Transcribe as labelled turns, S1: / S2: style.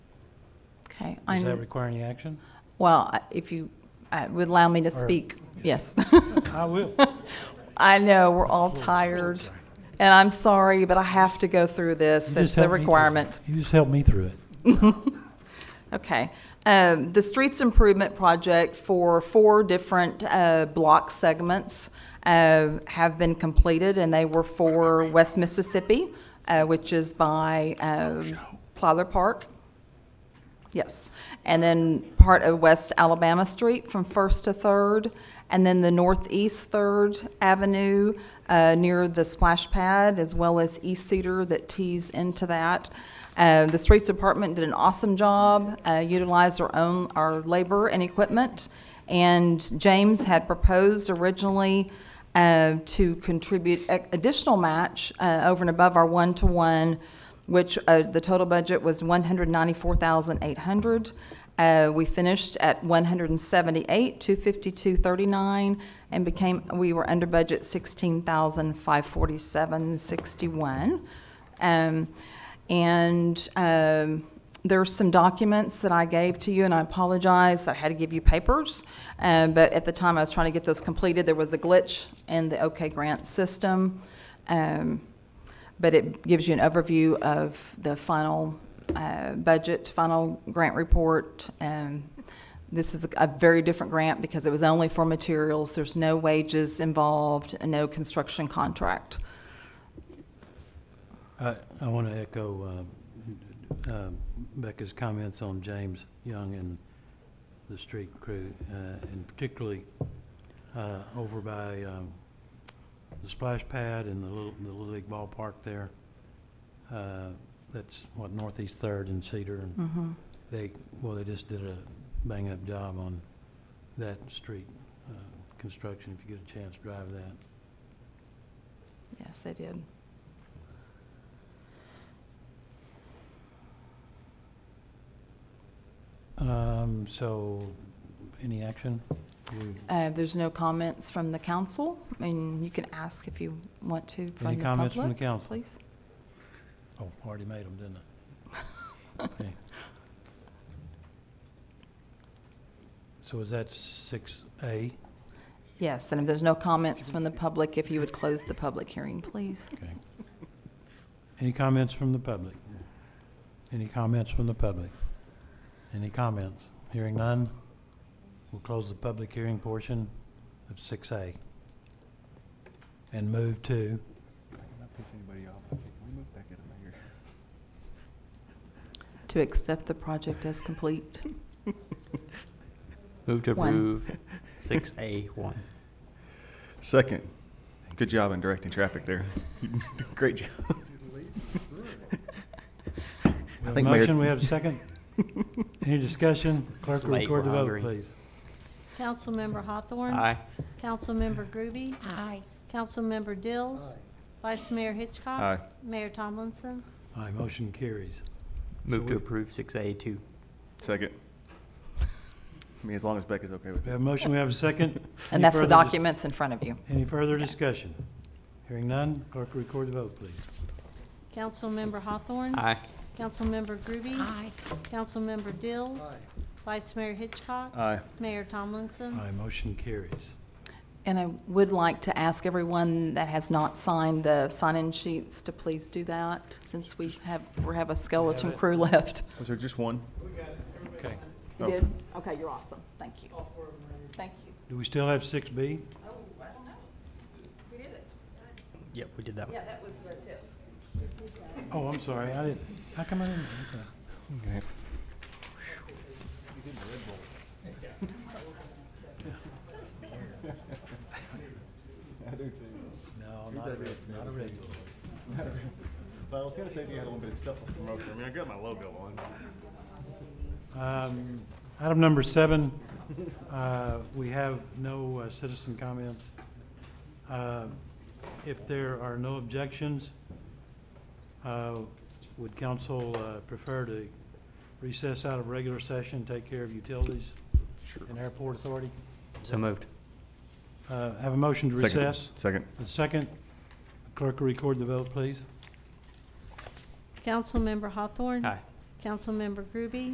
S1: Does that
S2: I'm,
S1: require any action?
S2: well, I- if you uh, would allow me to
S1: Or-
S2: speak, yes.
S1: I will.
S2: I know, we're all tired, and I'm sorry, but I have to go through this. It's a requirement.
S1: You just helped me through it.
S2: Okay. Um, The streets improvement project for four different uh, block segments uh, have been completed, and they were for West Mississippi, uh, which is by um, Plyler Park. Yes. And then part of West Alabama Street from First to Third, and then the Northeast Third Avenue uh, near the splash pad, as well as East Cedar that tees into that. Uh, The Streets Department did an awesome job, uh, utilized our own, our labor and equipment. And James had proposed originally uh, to contribute a- additional match uh, over and above our one-to-one which uh, the total budget was one hundred ninety-four thousand eight hundred. Uh, we finished at one hundred and seventy-eight, two fifty-two, thirty-nine, and became, we were under budget sixteen thousand five forty-seven, sixty-one. Um, and, um, there's some documents that I gave to you, and I apologize, that I had to give you papers. Uh, but at the time I was trying to get those completed, there was a glitch in the OK grant system. Um, but it gives you an overview of the final uh, budget, final grant report. And this is a very different grant because it was only for materials. There's no wages involved, and no construction contract.
S1: I, I want to echo um, um, Becca's comments on James Young and the street crew, uh, and particularly uh, over by um, the splash pad and the little, the Little League ballpark there. Uh, That's what Northeast Third and Cedar, and they, well, they just did a bang-up job on that street uh, construction, if you get a chance, drive that.
S2: Yes, they did.
S1: Um, so, any action? We-
S2: Uh, There's no comments from the council, and you can ask if you want to from the public.
S1: Any comments from the council?
S2: Please.
S1: Oh, I already made them, didn't I? Okay. So is that six A?
S2: Yes, and if there's no comments from the public, if you would close the public hearing, please.
S1: Okay. Any comments from the public? Any comments from the public? Any comments? Hearing none, we'll close the public hearing portion of six A. And move to,
S3: Can I piss anybody off? Okay, can we move back in over here?
S2: To accept the project as complete.
S4: Move to
S2: One.
S4: approve six A one.
S3: Second. Good job in directing traffic there. Great job.
S1: we
S3: I
S1: have a
S3: think Mayor-
S1: motion, we have a second? Any discussion? Clerk,
S4: It's late,
S1: record the
S4: we're
S1: vote,
S4: hungry.
S1: please.
S5: Councilmember Hawthorne.
S4: Aye.
S5: Councilmember Groby. Aye. Councilmember Dills. Vice Mayor Hitchcock.
S3: Aye.
S5: Mayor Tomlinson.
S1: Aye, motion carries.
S4: Move to
S1: we-
S4: approve six A two.
S3: Second. I mean, as long as Becca's okay with
S1: We
S3: it.
S1: have a motion, we have a second. Any
S2: And that's the
S1: further dis-
S2: documents in front of you.
S1: Any further discussion? Hearing none, clerk record the vote, please.
S2: Mm.
S5: Councilmember Hawthorne.
S4: Aye.
S5: Councilmember Groby. Aye. Councilmember Dills. Vice Mayor Hitchcock.
S3: Aye.
S5: Mayor Tomlinson.
S1: Aye, motion carries.
S2: And I would like to ask everyone that has not signed the sign-in sheets to please do that, since we have, we have a skeleton crew left.
S3: Was there just one?
S1: Okay.
S2: You
S3: Oh.
S2: did? Okay, you're awesome. Thank you. Thank you.
S1: Do we still have six B?
S2: Oh, I don't know. We did it.
S4: Yep, we did that one.
S2: Yeah, that was the tip.
S1: Oh, I'm sorry, I didn't, how come I didn't? okay.
S3: Okay.
S1: No, not a, reg- not a regular.
S3: But I was gonna say if you had a little bit of self-promotion. I mean, I got my logo on.
S1: Um, Item number seven, uh, we have no uh, citizen comments. Uh, If there are no objections, uh, would council uh, prefer to recess out of regular session, take care of utilities
S3: Sure.
S1: and airport authority?
S4: So moved.
S1: Uh, Have a motion to
S3: Second.
S1: recess?
S3: Second.
S1: And Second, clerk will record the vote, please.
S5: Councilmember Hawthorne.
S2: Mm.
S4: Aye.
S5: Councilmember Groby.